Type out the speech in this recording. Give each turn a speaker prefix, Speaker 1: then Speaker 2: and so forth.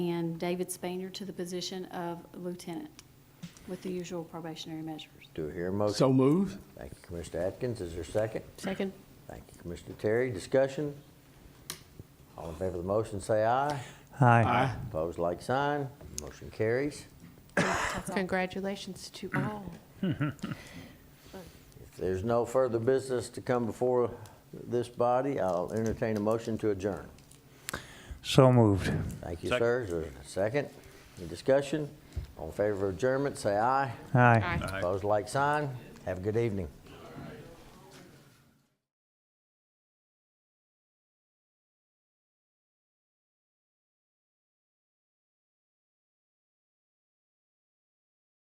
Speaker 1: and David Spanier to the position of lieutenant with the usual probationary measures.
Speaker 2: Do I hear a motion?
Speaker 3: So moved.
Speaker 2: Thank you, Commissioner Atkins. Is there a second?
Speaker 4: Second.
Speaker 2: Thank you, Commissioner Terry. Discussion? All in favor of the motion, say aye.
Speaker 5: Aye.
Speaker 2: Opposed, like sign. Motion carries.
Speaker 4: Congratulations to all.
Speaker 2: If there's no further business to come before this body, I'll entertain a motion to adjourn.
Speaker 5: So moved.
Speaker 2: Thank you, sir. Is there a second? Any discussion? All in favor of adjournment, say aye.
Speaker 5: Aye.
Speaker 4: Aye.
Speaker 2: Opposed, like sign. Have a good evening.